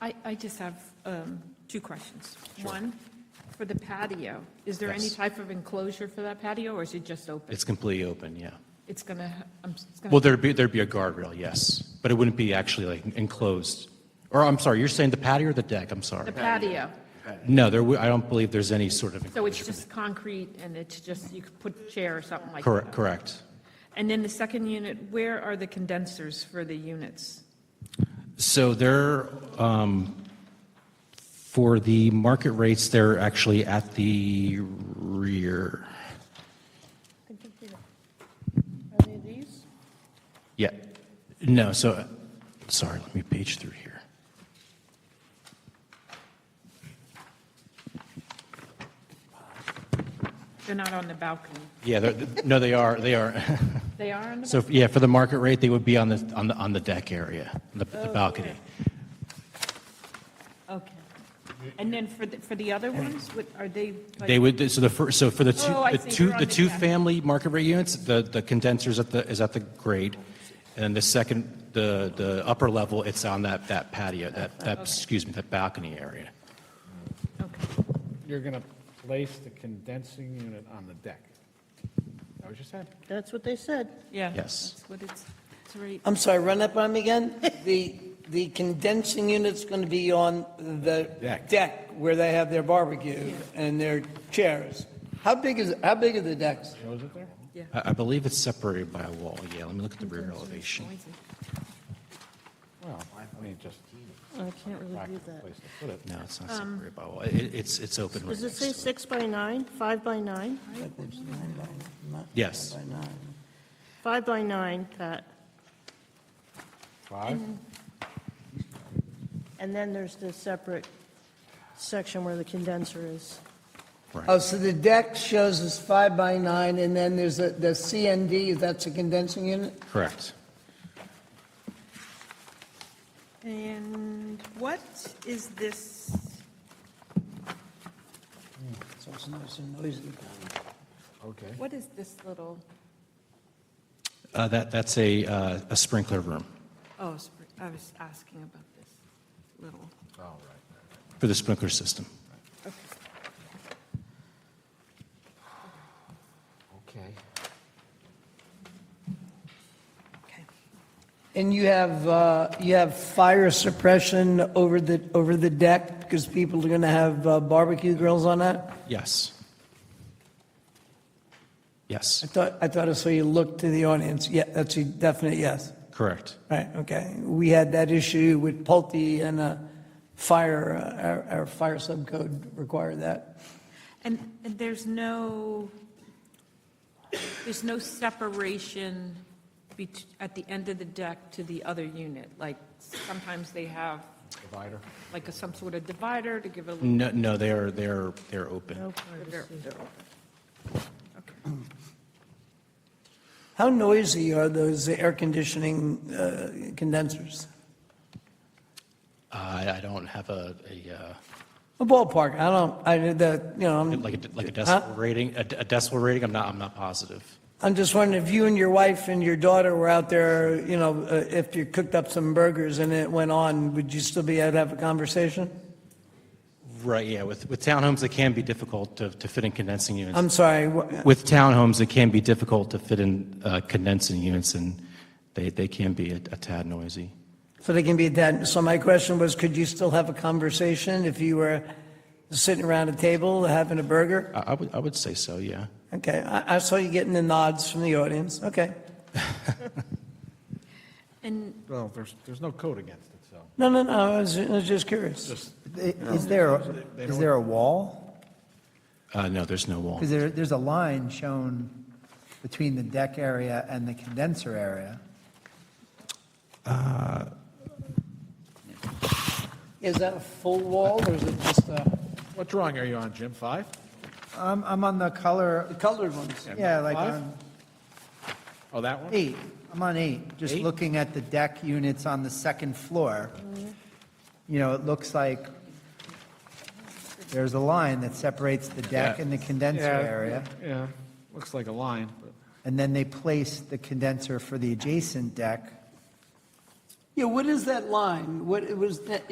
I, I just have um, two questions. One, for the patio, is there any Yes. type of enclosure for that patio, or is it just open? It's completely open, yeah. It's gonna, ha- I'm, it's Well, gonna, there'd be, there'd be a guardrail, yes, but it wouldn't be actually like enclosed. Or I'm sorry, you're saying the patio or the deck, I'm sorry. the patio, No, there, wou- I don't believe there's any sort of. so it's enclosure. just concrete, and it's just, you could put a chair or something like that? Correct, correct. And then the second unit, where are the condensers for the units? So they're, um, for the market rates, they're actually at the rear. I think we Are they these? Yeah, no, so, sorry, let me page through here. They're not on the balcony. Yeah, they're, no, they are, they are. They are on the, So, yeah, for the market rate, they would be on the, on the, on the deck area, the the Oh, balcony. bal- okay. And then for, the for the other ones, what, are they? like- They would, so the first, so for the two, Oh, I the see, two, they're on the the two deck. family market rate units, the, the condenser's at the, is at the grade. And then the second, the, the upper level, it's on that, that patio, that, that, excuse me, that balcony area. Okay. You're going to place the condensing unit on the deck. Is that what you said? That's what they said. Yeah. Yes. That's what it's, it's right. I'm sorry, run that by me again? The, the condensing unit's going to be on the Deck. deck where they have their barbecue and their chairs. How big is, how big are the decks? Shows it there? I, I believe it's separated by a wall, yeah, let me look at the rear elevation. Well, I mean, just I can't really do practical that. place to put it. No, it's not Um, separated by a wall, it, it's, it's open right Does it next say to it. six by nine, five by nine? Yes, Five by nine, Pat. Five? And then there's the separate section where the condenser is. Oh, right, so the deck shows us five by nine, and then there's a, the CND, that's a condensing unit? correct. And what is this? So it's not so noisy. Okay. What is this little? Uh, that, that's a, uh, a sprinkler room Oh, spr- I was asking about this little. All for the sprinkler system. right. Okay. Okay. And you have, uh, you have fire suppression over the, over the deck, because people are going to have uh, barbecue grills on that? Yes. I Yes, thought, I thought I saw you look to the audience. Yeah, that's a definite yes. correct. Right, okay. We had that issue with Pulte and uh, fire, uh, our- our fire subcode required that. And, and there's no, there's no separation bet, at the end of the deck to the other unit? Like, sometimes they have Divider. like a, some sort of divider to give a little. No, no, they are, they are, they're open. they're- they're open. How noisy are those air conditioning uh, condensers? Uh, I, I don't have a, a, A ballpark, I don't, I, the, you know, uh, I'm- like a, like a decibel rating, a a decibel rating, I'm not, I'm not positive. I'm just wondering if you and your wife and your daughter were out there, you know, uh, if you cooked up some burgers and it went on, would you still be able to have a conversation? Right, yeah, with, with townhomes, it can be difficult to, to fit in condensing units. I'm sorry, wha- With townhomes, it can be difficult to fit in uh, condensing units, and they, they can be a a tad noisy. So they can be that, so my question was, could you still have a conversation if you were sitting around a table having a burger? I, I would, I would say so, yeah. Okay, I, I saw you getting the nods from the audience, okay. And Well, there's, there's no code against it, so. No, no, no, I was, I was just curious. Just, Is there, is there a wall? Uh, no, there's no wall. Because there, there's a line shown between the deck area and the condenser area. Is that a full wall or is it just a? what drawing are you on, Jim? Five? I'm, I'm on the The color, colored ones. yeah, like Five? on Oh, that one? eight, I'm on eight, just Eight? looking at the deck units on the second floor. Mm-hmm. You know, it looks like there's a line that separates the deck Yeah. and the condenser Yeah, area. Yeah, looks like a line, but. And then they place the condenser for the adjacent deck Yeah, what is that line? What, it was, that-